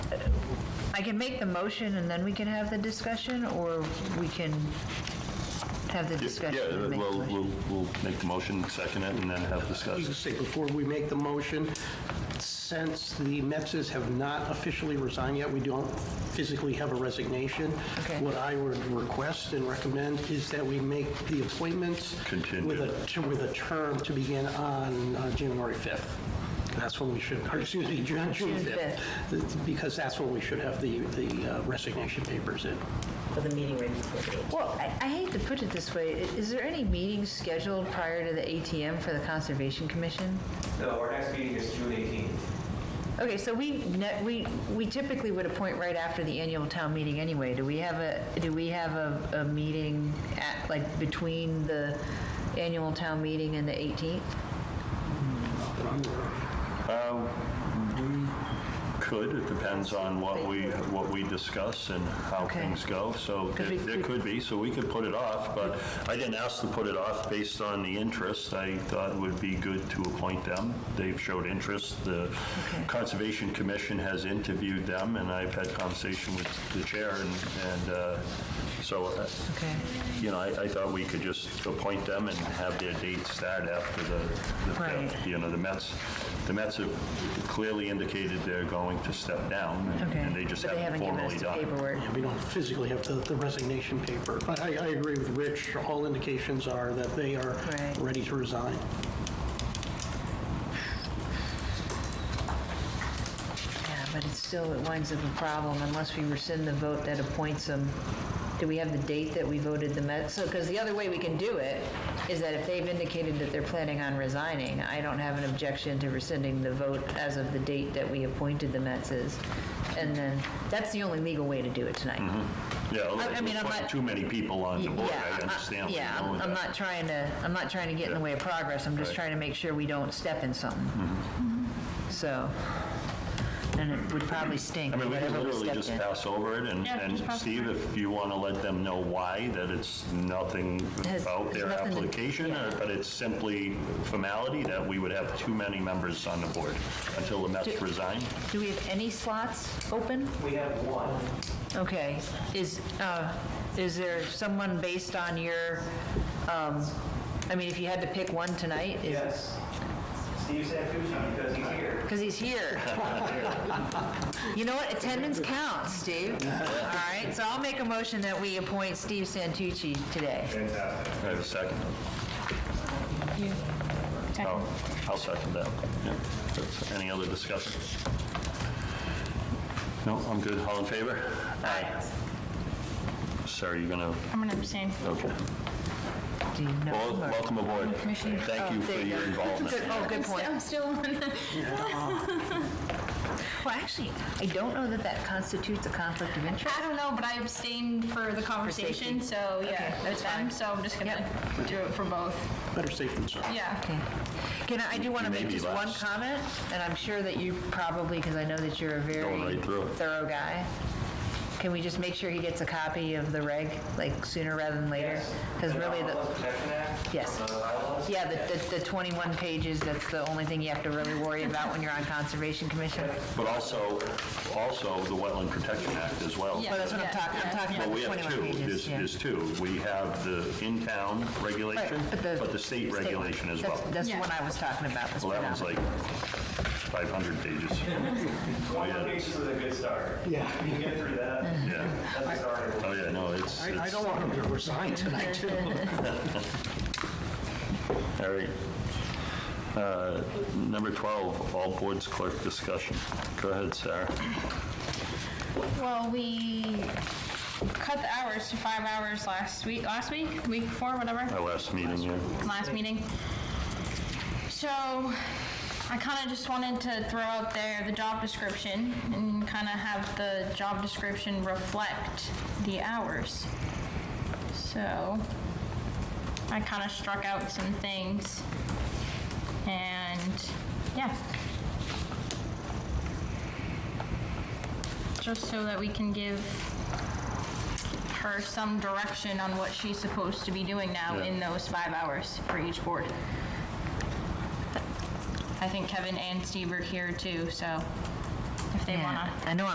I can make the motion and then we can have the discussion, or we can have the discussion Yeah, and make the we'll, motion? we'll, we'll make the motion, second it, and then have You can discussion. say, before we make the motion, since the Metzes have not officially resigned yet, we don't physically have a resignation. Okay. What I would request and recommend is that we make the appointments Contingent. with a, to- with a term to begin on uh, January 5th. That's when we should, or excuse me, June June June 5th. Because that's when we should have the, the uh, resignation papers in. for the meeting ready for the Well, I, I hate to put it this way, I- is there any meetings scheduled prior to the ATM for the Conservation Commission? No, our next meeting is June 18th. Okay, so we, ne- we, we typically would appoint right after the annual town meeting anyway. Do we have a, do we have a, a meeting at, like, between the annual town meeting and the 18th? Could, it depends on what we, what we discuss and how Okay. things go, so Could we- it it could be, so we could put it off, but I didn't ask to put it off based on the interest. I thought it would be good to appoint them. They've showed interest. The Conservation Commission has interviewed them, and I've had conversation with the chair, and, and uh, so, uh, Okay. you know, I, I thought we could just appoint them and have their date start after the, the Right. you know, the Mets, the Mets have clearly indicated they're going to step down, and- Okay. and they just But haven't given formally us the done. paperwork. Yeah, we don't physically have the, the resignation paper. But I, I agree with Rich, all indications are that they are Right. ready to resign. Yeah, but it's still, it winds up a problem unless we rescind the vote that appoints them. Do we have the date that we voted the Met, so, because the other way we can do it is that if they've indicated that they're planning on resigning, I don't have an objection to rescinding the vote as of the date that we appointed the Metzes. And then, that's the only legal way to do it tonight. Yeah, I- I otherwise mean, we'll I'm put not- too many people on Mm-hmm. the Yeah, board, I I'm- understand. where Yeah, you're I'm going I'm with not trying to, I'm not trying to get in the way of progress, I'm just Right. trying to make sure we don't step in something. So, and it would probably stink, that. I mean, we can whatever we literally stepped just in. pass over it, and, Yeah, and just pass Steve, if you want to let them know why, that it's nothing Has- about their nothing to- application, or- but it's simply formality that we would have too many members on the board until the Mets resign. Do we have any slots open? We have one. Okay, is, uh, is there someone based on your, um, I mean, if you had to pick one tonight? Yes. Steve Santucci, because he's here. Because he's here. You know what, attendance counts, Steve. All right, so I'll make a motion that we appoint Steve Santucci today. I have a second. I'll I'll second that. Yeah. That's- Any other discussion? No, I'm good. All in favor? Aye. Sorry, you're gonna, I'm going to abstain. okay. Do you know Well, him or- welcome aboard. Commissioner. Thank you Oh, for there you your go. involvement. Good- Oh, good point. I'm still on. Well, actually, I don't know that that constitutes a conflict of interest. I don't know, but I abstained for the conversation, safety. so Okay, yeah, that's with them, fine. so I'm just gonna do it for both. Better safe than sorry. Yeah. Okay. Can I, I do want to You may make be just one last. comment, and I'm sure that you probably, because I know that you're a Going very right through it. thorough guy. Can we just make sure he gets a copy of the reg, like sooner rather than later? Because really, The the, Wildlife Protection Act? Yes. The bylaws? yeah, the, the- the 21 pages, that's the only thing you have to really worry about when you're on Conservation Commission. But also, also the Wetland Protection Act as well. Yeah. Well, that's what I'm talking, I'm talking Yeah. about Well, we the 21 have two. pages. There's yeah. there's two. We have the in-town regulation, Right, but the state one. regulation as well. That's- That's the Yeah. one I was talking about. that's Well, that what I'm- one's like 500 pages. Oh, yeah, Twenty-one pages is a good start. Yeah. We can get through that. Yeah. That's a starter. Oh, yeah, no, it's, I, I it's, don't all want them to resign tonight, too. right. Uh, Number 12, all boards clerk discussion. Go ahead, Sarah. Well, we cut the hours to five hours last week, last week, week before, whatever. Our last meeting here. last meeting. So I kind of just wanted to throw out there the job description and kind of have the job description reflect the hours. So I kind of struck out some things and yeah. Just so that we can give her some direction on what she's supposed to be doing now Yeah. in those five hours for each board. I think Kevin and Steve are here too, so if they Yeah. want to I know